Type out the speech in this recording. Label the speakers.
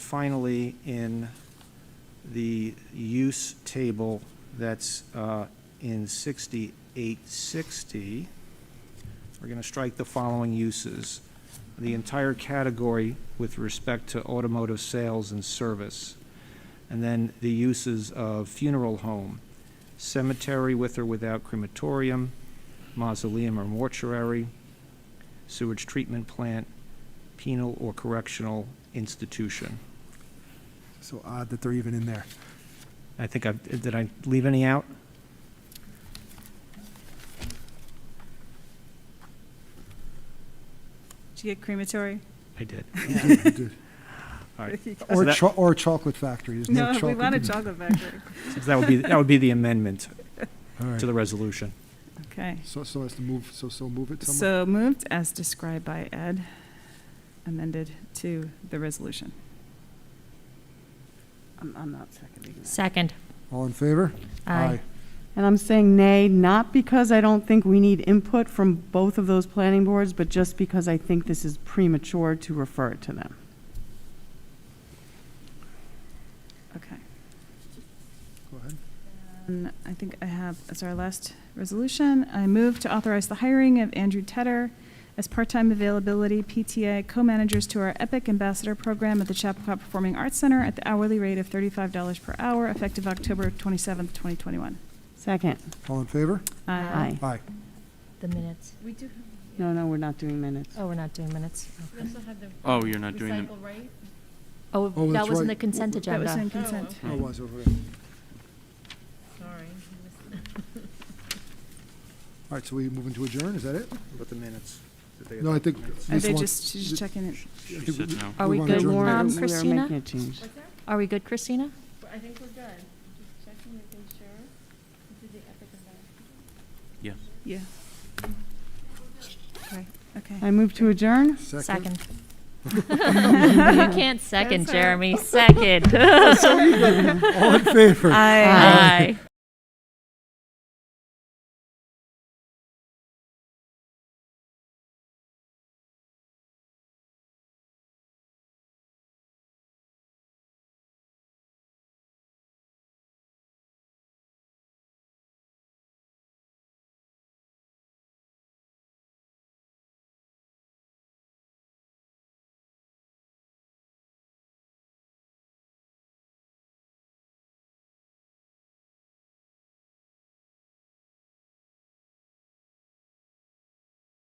Speaker 1: finally, in the use table that's uh, in 6860, we're going to strike the following uses. The entire category with respect to automotive sales and service. And then the uses of funeral home, cemetery with or without crematorium, mausoleum or mortuary, sewage treatment plant, penal or correctional institution.
Speaker 2: So odd that they're even in there.
Speaker 1: I think I, did I leave any out?
Speaker 3: Did you get crematory?
Speaker 1: I did. All right. So
Speaker 2: Or
Speaker 1: that-
Speaker 2: cho- or chocolate factory, there's no
Speaker 3: No,
Speaker 2: chocolate.
Speaker 3: we want a
Speaker 2: in there.
Speaker 3: chocolate factory.
Speaker 1: So That would be, that would be the amendment
Speaker 2: All right.
Speaker 1: to the resolution.
Speaker 3: Okay.
Speaker 2: So, so as to move, so, so move it somewhere?
Speaker 3: So moved as described by Ed, amended to the resolution.
Speaker 4: I'm, I'm not seconding that.
Speaker 5: Second.
Speaker 2: All in favor?
Speaker 5: Aye.
Speaker 4: And I'm saying nay, not because I don't think we need input from both of those planning boards, but just because I think this is premature to refer it to them.
Speaker 3: Okay.
Speaker 2: Go ahead.
Speaker 3: And I think I have, as our last resolution, I move to authorize the hiring of Andrew Tedder as part-time availability PTA co-managers to our Epic Ambassador Program at the Chappaqua Performing Arts Center at the hourly rate of thirty-five dollars per hour, effective October twenty-seventh, twenty twenty-one.
Speaker 4: Second.
Speaker 2: All in favor?
Speaker 4: Aye.
Speaker 2: Aye.
Speaker 5: The minutes.
Speaker 6: We do,
Speaker 4: No, no, we're not doing minutes.
Speaker 5: Oh, we're not doing minutes.
Speaker 6: we also have the.
Speaker 7: Oh, you're not doing them.
Speaker 6: Recycle, right?
Speaker 5: Oh,
Speaker 2: Oh,
Speaker 5: that
Speaker 2: that's
Speaker 5: was in
Speaker 2: right.
Speaker 5: the consent
Speaker 3: That was in
Speaker 5: agenda.
Speaker 3: consent.
Speaker 2: Oh, it was over there.
Speaker 6: Sorry. I missed
Speaker 2: All right, so we moving to adjourn, is that it?
Speaker 1: But the minutes.
Speaker 2: No, I think.
Speaker 3: Are
Speaker 2: Lisa
Speaker 3: they
Speaker 2: wants-
Speaker 3: just, she's just checking it?
Speaker 2: I
Speaker 7: She
Speaker 2: think
Speaker 7: said
Speaker 2: we-
Speaker 7: no.
Speaker 5: Are we
Speaker 2: want
Speaker 5: good,
Speaker 2: adjournment.
Speaker 5: Lauren? Um,
Speaker 4: We are
Speaker 5: Christina?
Speaker 4: making a change.
Speaker 6: What's that?
Speaker 5: Are we good, Christina?
Speaker 6: I think we're good. Just checking, making sure. This is the epic event.
Speaker 7: Yes.
Speaker 3: Yeah.
Speaker 6: Mm-hmm.
Speaker 3: Okay.
Speaker 4: I move to adjourn?
Speaker 5: Second. You can't second, Jeremy. Second.
Speaker 2: All in favor?
Speaker 5: Aye.